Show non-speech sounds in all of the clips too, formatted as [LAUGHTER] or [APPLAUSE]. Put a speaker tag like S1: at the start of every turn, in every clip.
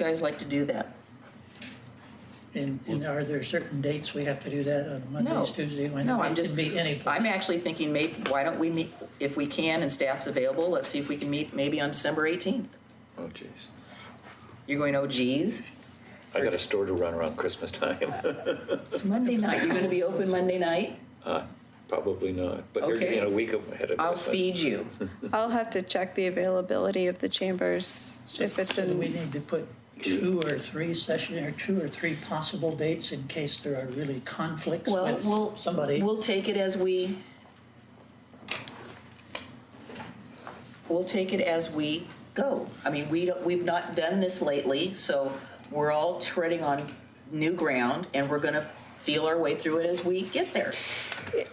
S1: guys like to do that?
S2: And, and are there certain dates we have to do that on Mondays, Tuesdays, Wednesdays?
S1: No, I'm just.
S2: It can be any
S1: I'm
S2: place.
S1: actually thinking maybe, why don't we meet, if we can and staff's available, let's see if we can meet maybe on December 18th.
S3: Oh, jeez.
S1: You're going, oh geez,
S3: I got a store to run around Christmas time. [LAUGHS]
S1: it's Monday night, you're gonna be open Monday night?
S3: Probably not, but you're
S1: Okay.
S3: getting a week ahead of
S1: I'll
S3: Christmas.
S1: feed you.
S4: I'll have to check the availability of the chambers if it's
S2: So do we
S4: in,
S2: need to put two or three session, or two or three possible dates in case there are really conflicts
S1: Well,
S2: with
S1: we'll,
S2: somebody?
S1: we'll take it as we, we'll take it as we go. I mean, we don't, we've not done this lately, so we're all treading on new ground and we're gonna feel our way through it as we get there.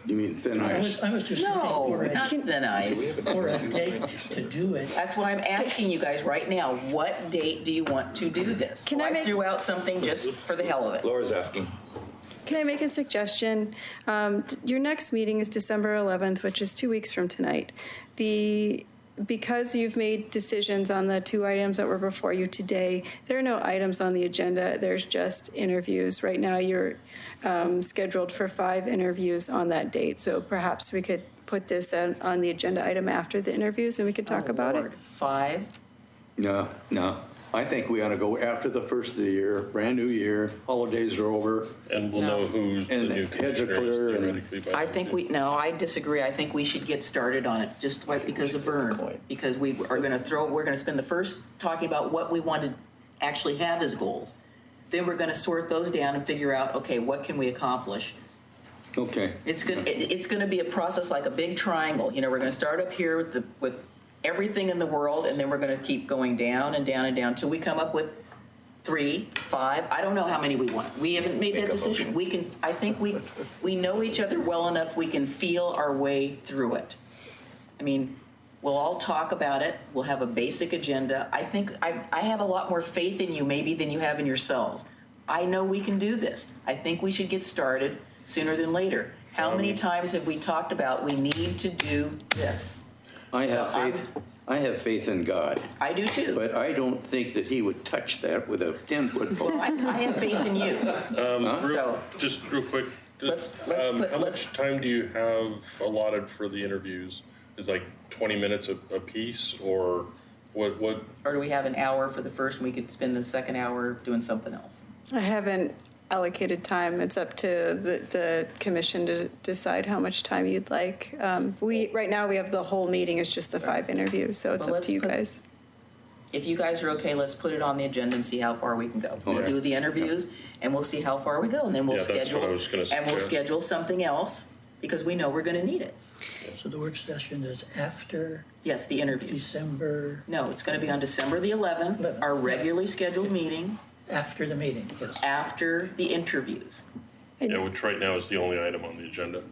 S5: You mean thin
S2: I
S5: ice?
S2: was, I was just looking
S1: No,
S2: for
S1: not
S2: a,
S1: the nice.
S2: for a date to do it.
S1: That's why I'm asking you guys right now, what date do you want to do this?
S4: Can
S1: So
S4: I make-
S1: threw out something just for the hell of it.
S3: Laura's asking.
S4: can I make a suggestion? Um, d- Your next meeting is December 11th, which is two weeks from tonight. The, because you've made decisions on the two items that were before you today, there are no items on the agenda, there's just interviews. Right now, you're um, scheduled for five interviews on that date, so perhaps we could put this on on the agenda item after the interviews and we could talk
S1: Oh,
S4: about it.
S1: Lord. Five?
S5: No, no. I think we ought to go after the first of the year, brand new year, holidays are over.
S6: And we'll
S1: No.
S6: know who the
S5: And
S6: new
S5: heads are
S6: commissioner is
S5: clear and-
S6: theoretically by
S1: I
S6: then,
S1: think
S6: too.
S1: we, no, I disagree. I think we should get started on it, just like because of burn. Because we are gonna throw, we're gonna spend the first talking about what we want to actually have as goals. Then we're gonna sort those down and figure out, okay, what can we accomplish?
S5: Okay.
S1: It's gonna, it- it's gonna be a process like a big triangle, you know, we're gonna start up here with the, with everything in the world, and then we're gonna keep going down and down and down till we come up with three, five, I don't know how many we want. We haven't made
S3: Make
S1: that
S3: a
S1: decision.
S3: motion.
S1: We can, I think we, we know each other well enough, we can feel our way through it. I mean, we'll all talk about it, we'll have a basic agenda. I think, I, I have a lot more faith in you maybe than you have in yourselves. I know we can do this. I think we should get started sooner than later. How many
S3: Um,
S1: times have we talked about we need to do this?
S5: I have
S1: So I'm-
S5: faith, I have faith in God,
S1: I do too.
S5: but I don't think that he would touch that with a 10-foot
S1: Well,
S5: pole.
S1: I, I have faith in you. uh, So,
S6: Just Um, real quick,
S1: Let's-
S6: just,
S1: let's
S6: um,
S1: put-
S6: how
S1: let's-
S6: much time do you have allotted for the interviews? Is like twenty minutes a, a piece or what, what,
S1: or do we have an hour for the first and we could spend the second hour doing something else?
S4: I haven't allocated time. It's up to the, the commission to decide how much time you'd like. Um, we, right now, we have the whole meeting, it's just the five interviews, so it's
S1: Well,
S4: up
S1: let's
S4: to you
S1: put-
S4: guys.
S1: If you guys are okay, let's put it on the agenda and see how far we can go. We'll
S6: Okay.
S1: do the interviews and we'll see how far we go and then we'll
S6: Yeah, that's what I
S1: schedule.
S6: was gonna
S1: And we'll
S6: suggest.
S1: schedule something else because we know we're gonna need it.
S2: So the work session is after
S1: Yes, the interviews.
S2: December,
S1: No, it's gonna be on December the eleventh, our regularly scheduled meeting
S2: after the meeting, yes.
S1: after the interviews.
S6: yeah, which right now is the only item on the agenda.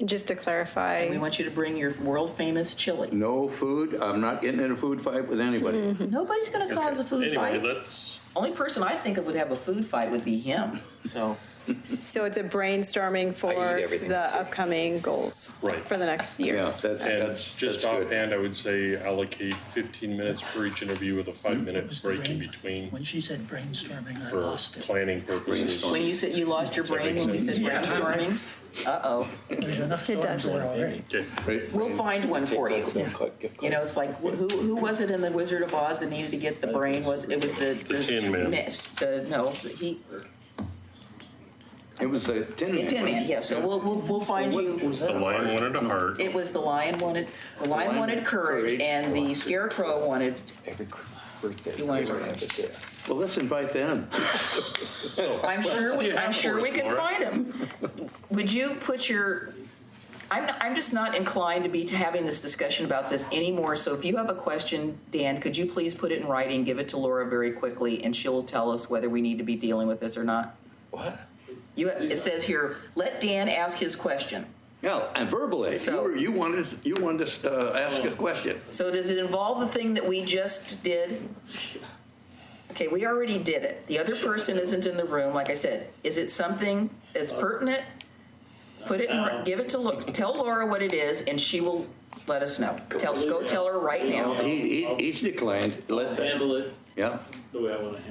S4: And just to
S1: We
S4: clarify,
S1: want you to bring your world famous chili.
S5: No food, I'm not getting in a food fight with anybody.
S1: Nobody's gonna cause a food
S6: Anyway,
S1: fight.
S6: let's,
S1: Only person I think of would have a food fight would be him, so.
S4: so it's a brainstorming for
S3: everything
S4: the
S3: I see.
S4: upcoming goals.
S6: Right.
S4: For the next year.
S5: Yeah, that's,
S6: and
S5: that's, that's
S6: just
S5: good.
S6: offhand, I would say allocate fifteen minutes for each interview with a
S2: Was
S6: five-minute
S2: the
S6: break
S2: brain-
S6: in between
S2: When she said brainstorming, I
S6: for
S2: lost it.
S6: planning purposes.
S1: When you said you lost your brain when you said brainstorming, uh-oh,
S2: There's enough
S4: It
S2: storms there
S4: doesn't.
S2: already.
S6: Okay,
S5: Right?
S1: we'll find one for you. You know, it's like who who was it in the Wizard of Oz that needed to get the brain? Was it was the the,
S6: Tin Man.
S1: miss- the no he
S5: It was a tin
S1: the
S5: man.
S1: Tin Man.
S5: wasn't it?
S1: Yes, so we'll we'll, we'll find you.
S6: the lion wanted a heart.
S1: It was the lion wanted the lion,
S5: lion
S1: wanted courage,
S5: courage.
S1: and the scarecrow wanted.
S3: Every cr- birthday.
S1: You wanna
S3: we
S1: work
S3: have
S1: it.
S3: a desk.
S5: Well, let's
S1: [LAUGHS]
S5: invite them.
S1: I'm sure we,
S6: Yeah,
S1: I'm
S6: of
S1: sure we
S6: course,
S1: can
S6: Laura.
S1: find him. Would you put your? I'm not, I'm just not inclined to be having this discussion about this anymore. So if you have a question, Dan, could you please put it in writing, give it to Laura very quickly, and she'll tell us whether we need to be dealing with this or not.
S3: What?
S1: You, it says here, let Dan ask his question.
S5: Yeah, and verbally, you
S1: So-
S5: were, you wanted, you wanted us to uh, ask a question.
S1: So does it involve the thing that we just did? Okay, we already did it. The other person isn't in the room, like I said. Is it something that's pertinent? Put it, in, give it to, Lo- tell Laura what it is, and she will let us know. Tell, go tell her right now.
S5: He, he, he's declined, let,
S7: handle it
S5: yeah.
S7: the way I want to handle it.